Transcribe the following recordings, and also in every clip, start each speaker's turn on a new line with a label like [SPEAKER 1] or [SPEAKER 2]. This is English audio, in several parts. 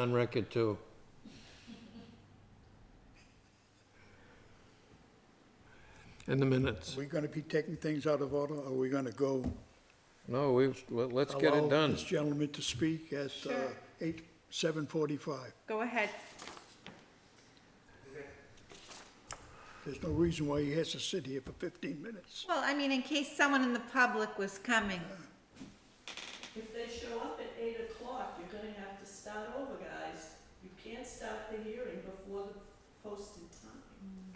[SPEAKER 1] on record too. In the minutes.
[SPEAKER 2] Are we going to be taking things out of order? Are we going to go?
[SPEAKER 1] No, we, let- let's get
[SPEAKER 2] allow
[SPEAKER 1] it done.
[SPEAKER 2] This gentleman to speak at uh,
[SPEAKER 3] Sure.
[SPEAKER 2] eight, 7:45.
[SPEAKER 3] Go ahead.
[SPEAKER 2] There's no reason why he has to sit here for 15 minutes.
[SPEAKER 3] Well, I mean, in case someone in the public was coming.
[SPEAKER 4] If they show up at eight o'clock, you're gonna have to start over, guys. You can't start the hearing before the posted time.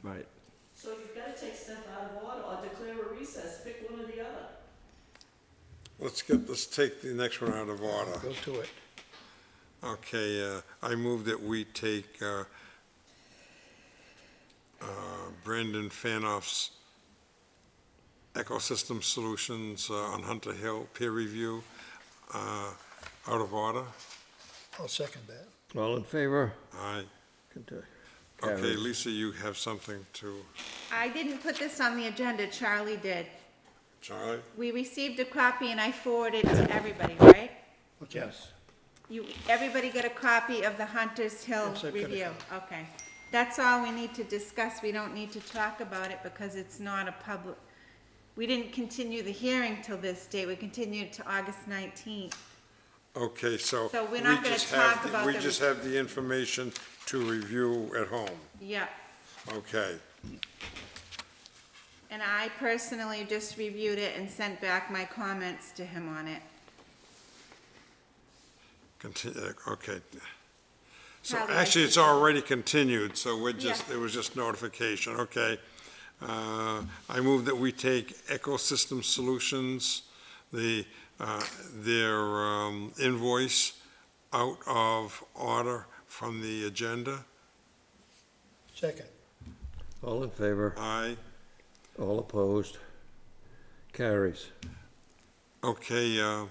[SPEAKER 1] Right.
[SPEAKER 4] So you've gotta take stuff out of order or declare a recess, pick one or the other.
[SPEAKER 5] Let's get, let's take the next one out of order.
[SPEAKER 2] Go to it.
[SPEAKER 5] Okay, uh, I move that we take uh, uh, Brandon Fanoff's Ecosystem Solutions uh, on Hunter Hill peer review uh, out of order.
[SPEAKER 2] I'll second that.
[SPEAKER 1] All in favor?
[SPEAKER 5] Aye.
[SPEAKER 1] Continue.
[SPEAKER 5] Okay,
[SPEAKER 1] Carries.
[SPEAKER 5] Lisa, you have something to,
[SPEAKER 3] I didn't put this on the agenda, Charlie did.
[SPEAKER 5] Charlie?
[SPEAKER 3] We received a copy and I forwarded it to everybody, right?
[SPEAKER 2] What's that?
[SPEAKER 1] Yes.
[SPEAKER 3] You, everybody get a copy of the Hunter's Hill
[SPEAKER 2] Yes, I've got it.
[SPEAKER 3] review? Okay. That's all we need to discuss. We don't need to talk about it because it's not a public, we didn't continue the hearing till this date. We continued to August nineteenth.
[SPEAKER 5] Okay, so.
[SPEAKER 3] So we're
[SPEAKER 5] we
[SPEAKER 3] not gonna
[SPEAKER 5] just have
[SPEAKER 3] talk
[SPEAKER 5] the-
[SPEAKER 3] about
[SPEAKER 5] We
[SPEAKER 3] the-
[SPEAKER 5] just have the information to review at home.
[SPEAKER 3] Yep.
[SPEAKER 5] Okay,
[SPEAKER 3] And I personally just reviewed it and sent back my comments to him on it.
[SPEAKER 5] continue, uh, okay. So
[SPEAKER 3] Probably.
[SPEAKER 5] actually, it's already continued, so we're just,
[SPEAKER 3] Yeah.
[SPEAKER 5] it was just notification, okay. Uh, I move that we take Ecosystem Solutions, the, uh, their um, invoice out of order from the agenda.
[SPEAKER 2] Second.
[SPEAKER 1] All in favor?
[SPEAKER 5] Aye.
[SPEAKER 1] All opposed? Carries.
[SPEAKER 5] Okay, uh,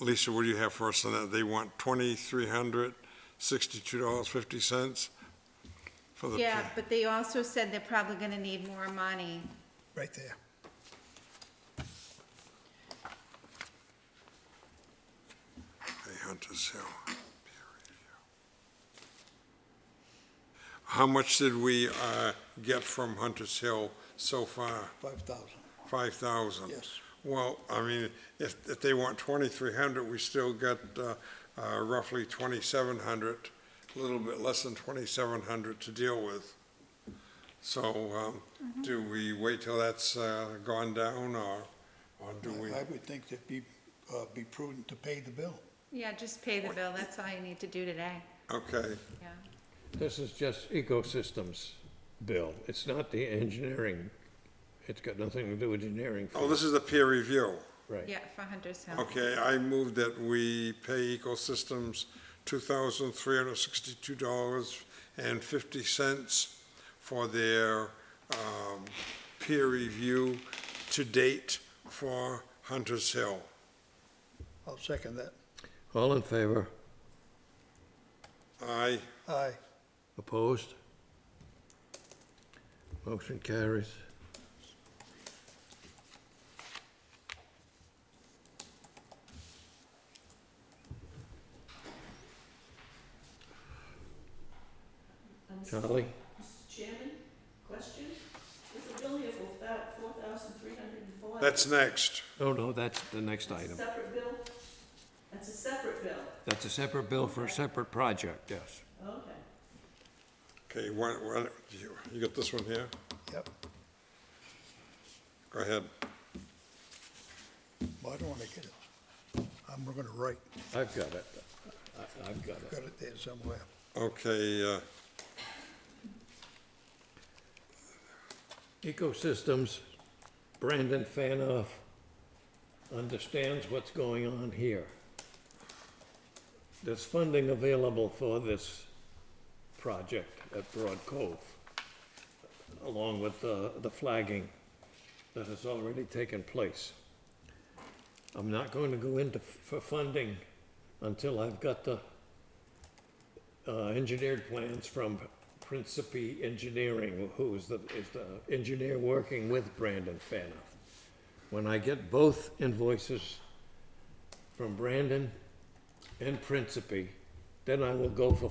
[SPEAKER 5] Lisa, what do you have for us on that? They want twenty-three hundred sixty-two dollars fifty cents for the.
[SPEAKER 3] Yeah, but they also said they're probably gonna need more money.
[SPEAKER 2] Right there.
[SPEAKER 5] Hey, Hunter's Hill. peer review. How much did we uh, get from Hunter's Hill so far?
[SPEAKER 2] 5,000.
[SPEAKER 5] Five thousand?
[SPEAKER 2] Yes.
[SPEAKER 5] Well, I mean, if, if they want twenty-three hundred, we still got uh, uh, roughly twenty-seven hundred, a little bit less than twenty-seven hundred to deal with. So um, do we wait till that's uh, gone down or, or do we?
[SPEAKER 2] I would think that'd be, uh, be prudent to pay the bill.
[SPEAKER 3] Yeah, just pay the bill, that's all you need to do today,
[SPEAKER 5] Okay,
[SPEAKER 3] yeah.
[SPEAKER 1] This is just ecosystems bill. It's not the engineering. It's got nothing to do with engineering.
[SPEAKER 5] oh, this is a peer review.
[SPEAKER 1] Right.
[SPEAKER 3] Yeah, for Hunter's Hill.
[SPEAKER 5] Okay, I move that we pay Ecosystems two thousand three hundred sixty-two dollars and fifty cents for their, um, peer review to date for Hunter's Hill.
[SPEAKER 2] I'll second that.
[SPEAKER 1] All in favor?
[SPEAKER 5] Aye,
[SPEAKER 2] Aye.
[SPEAKER 1] Opposed? Motion carries.
[SPEAKER 4] And so-
[SPEAKER 1] Charlie?
[SPEAKER 4] Mr. Chairman, question? There's a bill here for about four thousand three hundred and four.
[SPEAKER 5] that's next.
[SPEAKER 1] Oh, no, that's the next
[SPEAKER 4] That's a
[SPEAKER 1] item.
[SPEAKER 4] separate bill? That's a separate bill,
[SPEAKER 1] That's a separate bill for a separate project, yes.
[SPEAKER 4] okay.
[SPEAKER 5] Okay, one, one, you, you got this one here?
[SPEAKER 2] Yep.
[SPEAKER 5] Go ahead.
[SPEAKER 2] Well, I don't want to get it. I'm going to write.
[SPEAKER 1] I've got it. I- I've got it.
[SPEAKER 2] Got it there somewhere.
[SPEAKER 5] Okay, uh,
[SPEAKER 1] Ecosystems, Brandon Fanoff understands what's going on here. There's funding available for this project at Broad Cove, along with the, the flagging that has already taken place. I'm not going to go into, f- for funding until I've got the uh, engineered plans from Principi Engineering, who is the, is the engineer working with Brandon Fanoff. When I get both invoices from Brandon and Principi, then I will go for